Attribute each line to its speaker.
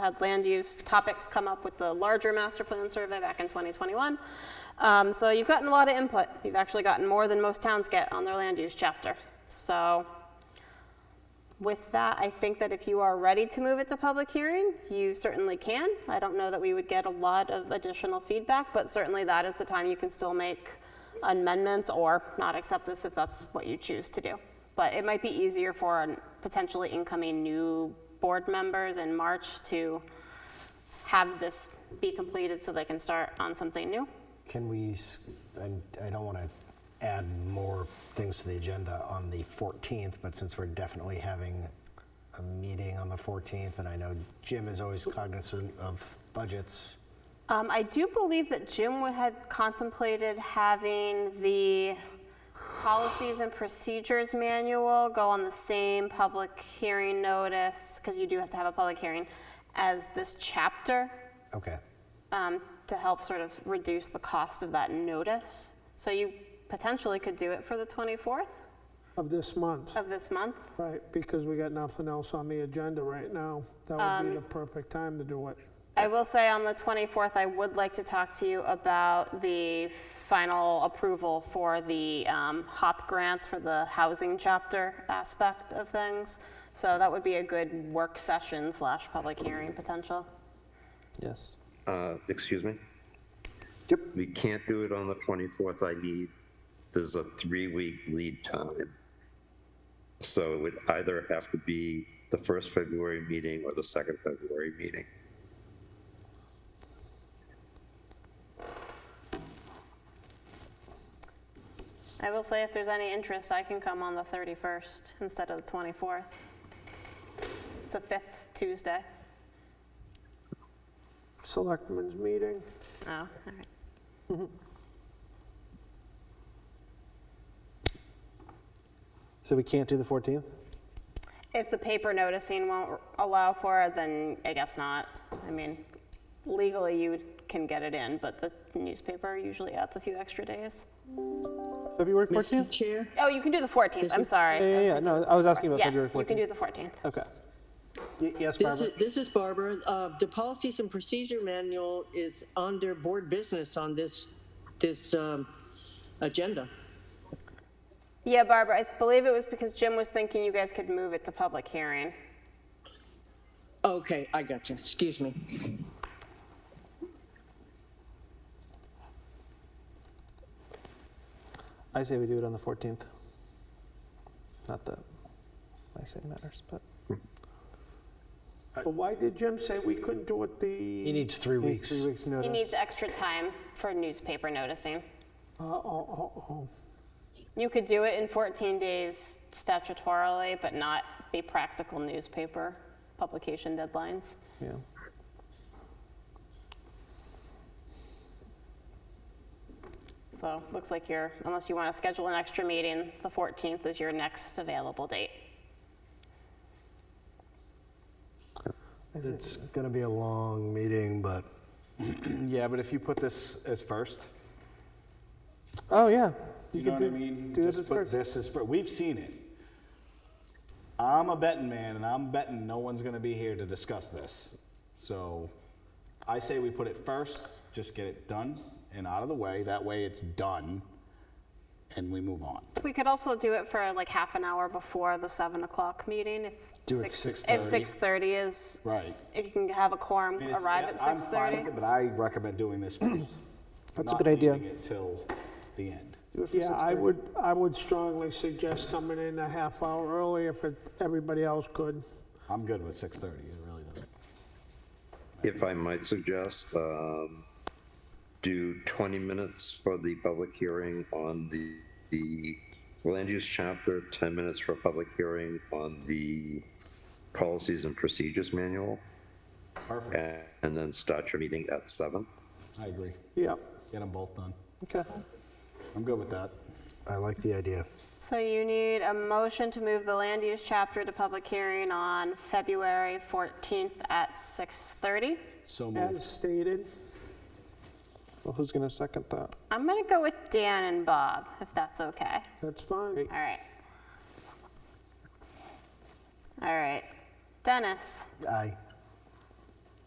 Speaker 1: had land use topics come up with the larger master plan survey back in 2021. Um, so you've gotten a lot of input. You've actually gotten more than most towns get on their land use chapter. So with that, I think that if you are ready to move it to public hearing, you certainly can. I don't know that we would get a lot of additional feedback, but certainly that is the time you can still make amendments or not accept this if that's what you choose to do. But it might be easier for an- potentially incoming new board members in March to have this be completed so they can start on something new.
Speaker 2: Can we, s- I I don't want to add more things to the agenda on the 14th, but since we're definitely having a meeting on the 14th, and I know Jim is always cognizant of budgets,
Speaker 1: Um, I do believe that Jim had contemplated having the policies and procedures manual go on the same public hearing notice, because you do have to have a public hearing, as this chapter,
Speaker 2: okay,
Speaker 1: um, to help sort of reduce the cost of that notice. So you potentially could do it for the 24th
Speaker 3: of this month,
Speaker 1: of this month.
Speaker 3: right? Because we got nothing else on the agenda right now. That would be the perfect time to do it.
Speaker 1: I will say on the 24th, I would like to talk to you about the final approval for the um, HOP grants for the housing chapter aspect of things. So that would be a good work session slash public hearing potential.
Speaker 4: Yes.
Speaker 5: Uh, Excuse me?
Speaker 2: Yep.
Speaker 5: We can't do it on the 24th. I need, there's a three-week lead time. So it would either have to be the first February meeting or the second February meeting.
Speaker 1: I will say if there's any interest, I can come on the 31st instead of the 24th. It's a fifth Tuesday.
Speaker 3: Selectmen's meeting,
Speaker 1: Oh, all right.
Speaker 4: So we can't do the 14th?
Speaker 1: If the paper noticing won't allow for it, then I guess not. I mean, legally you can get it in, but the newspaper usually adds a few extra days.
Speaker 4: February
Speaker 6: Mr.
Speaker 4: 14th?
Speaker 6: Chair,
Speaker 1: Oh, you can do the 14th, I'm sorry.
Speaker 4: Yeah, yeah, yeah. No, I was asking about February
Speaker 1: Yes,
Speaker 4: 14th.
Speaker 1: you can do the 14th.
Speaker 4: Okay.
Speaker 2: Y- Yes,
Speaker 6: this
Speaker 2: Barbara?
Speaker 6: is, this is Barbara. Uh, the policies and procedure manual is under board business on this, this, um, agenda.
Speaker 1: Yeah, Barbara, I believe it was because Jim was thinking you guys could move it to public hearing.
Speaker 6: Okay, I got you. Excuse me.
Speaker 4: I say we do it on the 14th. Not that I say it matters, but
Speaker 3: but why did Jim say we couldn't do it
Speaker 2: He
Speaker 3: the, uh,
Speaker 2: needs three
Speaker 4: it's
Speaker 2: weeks.
Speaker 4: three weeks
Speaker 1: He
Speaker 4: notice.
Speaker 1: needs extra time for newspaper noticing.
Speaker 3: uh, oh, oh, oh,
Speaker 1: You could do it in 14 days statutorily, but not the practical newspaper publication deadlines.
Speaker 4: yeah.
Speaker 1: So looks like you're, unless you want to schedule an extra meeting, the 14th is your next available date.
Speaker 2: It's going to be a long meeting, but
Speaker 7: Yeah, but if you put this as first,
Speaker 4: Oh, yeah.
Speaker 7: you
Speaker 4: can
Speaker 7: know what
Speaker 4: do,
Speaker 7: I mean?
Speaker 4: Do
Speaker 7: Just
Speaker 4: this
Speaker 7: put
Speaker 4: first.
Speaker 7: This is first. We've seen it. I'm a betting man, and I'm betting no one's going to be here to discuss this. So I say we put it first, just get it done and out of the way. That way it's done, and we move on.
Speaker 1: We could also do it for like half an hour before the 7 o'clock meeting if.
Speaker 2: Do it
Speaker 1: six-
Speaker 2: 6:30.
Speaker 1: If 6:30 is,
Speaker 7: Right.
Speaker 1: if you can have a quorum
Speaker 7: I mean, it's-
Speaker 1: arrive at
Speaker 7: I'm fine with
Speaker 1: 6:30.
Speaker 7: it, but I recommend doing this first.
Speaker 4: That's a
Speaker 7: Not
Speaker 4: good idea.
Speaker 7: leaving it till the end.
Speaker 4: Do it for
Speaker 3: Yeah, I
Speaker 4: 6:30.
Speaker 3: would, I would strongly suggest coming in a half hour early if it- everybody else could.
Speaker 7: I'm good with 6:30. It really doesn't.
Speaker 5: If I might suggest, um, do 20 minutes for the public hearing on the, the land use chapter, 10 minutes for a public hearing on the policies and procedures manual,
Speaker 7: Perfect.
Speaker 5: and and then start your meeting at seven.
Speaker 7: I agree.
Speaker 3: Yeah.
Speaker 7: Get them both done.
Speaker 4: Okay.
Speaker 7: I'm good with that.
Speaker 2: I like the idea.
Speaker 1: So you need a motion to move the land use chapter to public hearing on February 14th at 6:30.
Speaker 7: So moved.
Speaker 3: As stated,
Speaker 4: Well, who's going to second that?
Speaker 1: I'm going to go with Dan and Bob, if that's okay.
Speaker 3: that's fine.
Speaker 1: All right. All right. Dennis,
Speaker 2: Aye.